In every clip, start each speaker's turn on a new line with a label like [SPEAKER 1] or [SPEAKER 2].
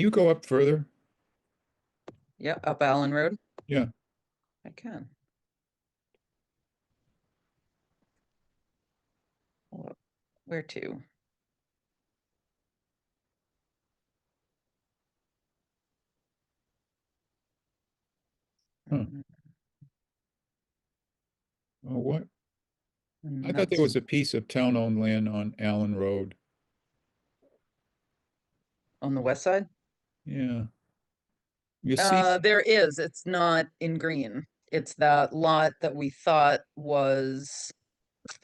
[SPEAKER 1] you go up further?
[SPEAKER 2] Yep, up Allen Road?
[SPEAKER 1] Yeah.
[SPEAKER 2] I can. Hold up. Where to?
[SPEAKER 1] Huh.
[SPEAKER 2] Mm,
[SPEAKER 1] Oh, what? I thought
[SPEAKER 2] nuts.
[SPEAKER 1] there was a piece of town-owned land on Allen Road.
[SPEAKER 2] On the west side?
[SPEAKER 1] Yeah. You see,
[SPEAKER 2] Uh, there is, it's not in green. It's that lot that we thought was,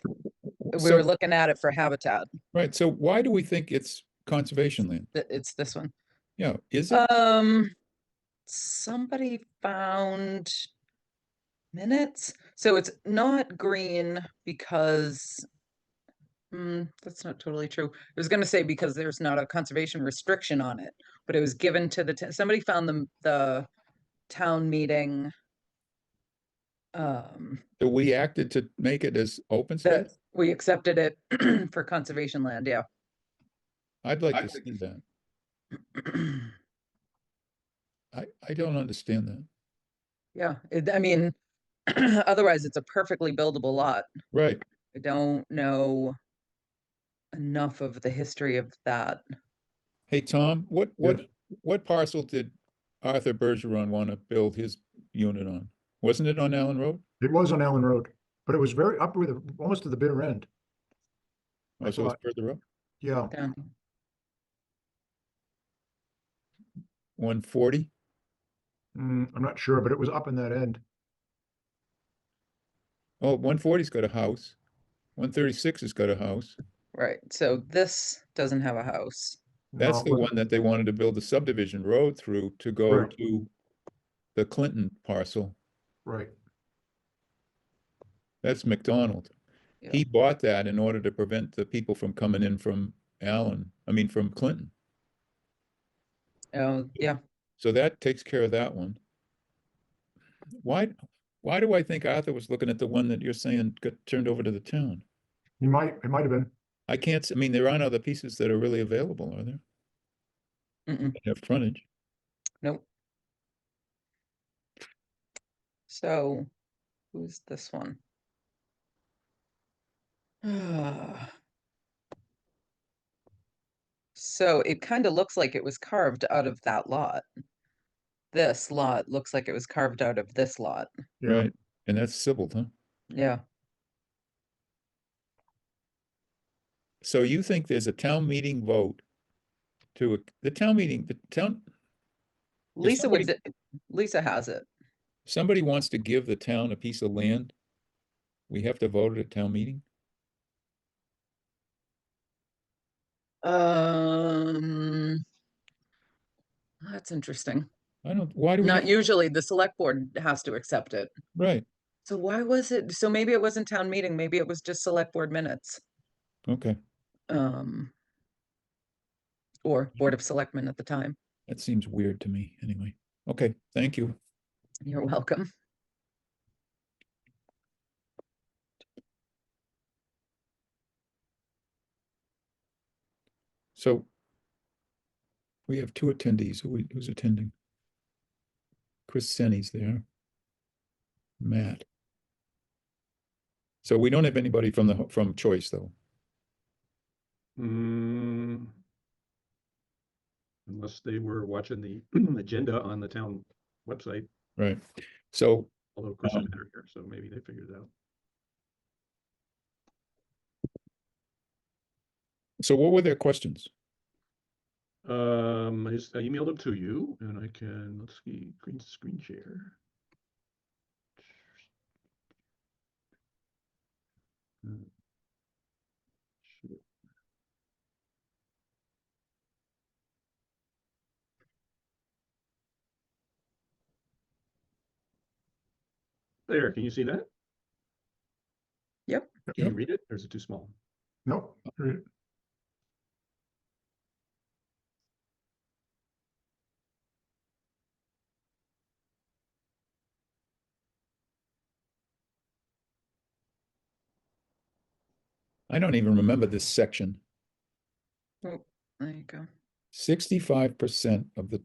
[SPEAKER 2] we were
[SPEAKER 1] so,
[SPEAKER 2] looking at it for habitat.
[SPEAKER 1] right, so why do we think it's conservation land?
[SPEAKER 2] Th- It's this one.
[SPEAKER 1] Yeah, is it?
[SPEAKER 2] Um, somebody found minutes, so it's not green because. Mm, that's not totally true. I was gonna say because there's not a conservation restriction on it, but it was given to the, t- somebody found the, the town meeting. Um,
[SPEAKER 1] That we acted to make it as open
[SPEAKER 2] that
[SPEAKER 1] space?
[SPEAKER 2] we accepted it for conservation land, yeah.
[SPEAKER 1] I'd like
[SPEAKER 3] I
[SPEAKER 1] to
[SPEAKER 3] think
[SPEAKER 1] see that. I, I don't understand that.
[SPEAKER 2] Yeah, it, I mean, otherwise it's a perfectly buildable lot.
[SPEAKER 1] Right,
[SPEAKER 2] I don't know enough of the history of that.
[SPEAKER 1] hey, Tom, what, what, what parcel did Arthur Bergeron want to build his unit on? Wasn't it on Allen Road?
[SPEAKER 3] It was on Allen Road, but it was very up with, the- almost to the bitter end.
[SPEAKER 1] Oh, so it's
[SPEAKER 3] thought-
[SPEAKER 1] further up,
[SPEAKER 3] Yeah,
[SPEAKER 2] down.
[SPEAKER 1] one forty?
[SPEAKER 3] mm, I'm not sure, but it was up in that end.
[SPEAKER 1] Oh, one forty's got a house. One thirty-six has got a house.
[SPEAKER 2] Right, so this doesn't have a house.
[SPEAKER 1] That's
[SPEAKER 3] No,
[SPEAKER 1] the
[SPEAKER 3] but-
[SPEAKER 1] one that they wanted to build the subdivision road through to go
[SPEAKER 3] Right.
[SPEAKER 1] to the Clinton parcel.
[SPEAKER 3] Right,
[SPEAKER 1] That's McDonald.
[SPEAKER 2] Yeah.
[SPEAKER 1] He bought that in order to prevent the people from coming in from Allen, I mean, from Clinton.
[SPEAKER 2] Oh, yeah,
[SPEAKER 1] So that takes care of that one. Why, why do I think Arthur was looking at the one that you're saying got turned over to the town?
[SPEAKER 3] it might, it might have been.
[SPEAKER 1] I can't, s- I mean, there aren't other pieces that are really available, are there?
[SPEAKER 2] mm-mm,
[SPEAKER 1] That Have frontage.
[SPEAKER 2] nope. So, who's this one? So it kind of looks like it was carved out of that lot. This lot looks like it was carved out of this lot,
[SPEAKER 3] Yeah.
[SPEAKER 1] Right, and that's Sybil, huh?
[SPEAKER 2] yeah.
[SPEAKER 1] So you think there's a town meeting vote to, ac- the town meeting, the town, If
[SPEAKER 2] Lisa would, d- Lisa has it.
[SPEAKER 1] somebody wants to give the town a piece of land? We have to vote at a town meeting?
[SPEAKER 2] Um. That's interesting.
[SPEAKER 1] I don't, why do we,
[SPEAKER 2] Not
[SPEAKER 1] have-
[SPEAKER 2] usually, the select board has to accept it.
[SPEAKER 1] right,
[SPEAKER 2] So why was it, so maybe it wasn't town meeting, maybe it was just select board minutes.
[SPEAKER 1] okay,
[SPEAKER 2] Um. Or Board of Selectmen at the time.
[SPEAKER 1] that seems weird to me, anyway. Okay, thank you.
[SPEAKER 2] You're welcome.
[SPEAKER 1] So we have two attendees, Who we- who's attending? Chris Senni's there. Matt. So we don't have anybody from the, from Choice, though.
[SPEAKER 4] Mm. Unless they were watching the agenda on the town website,
[SPEAKER 1] Right, so
[SPEAKER 4] although of course
[SPEAKER 1] Um,
[SPEAKER 4] I'm better here, so maybe they figured it out.
[SPEAKER 1] So what were their questions?
[SPEAKER 4] Um, I just I emailed them to you and I can, let's see, green screen share. Uh, shoot. There, can you see that?
[SPEAKER 2] Yep.
[SPEAKER 4] Can you
[SPEAKER 1] Yep.
[SPEAKER 4] read it or is it too small?
[SPEAKER 3] No, right.
[SPEAKER 1] I don't even remember this section.
[SPEAKER 2] Oh, There you go.
[SPEAKER 1] Sixty-five percent of the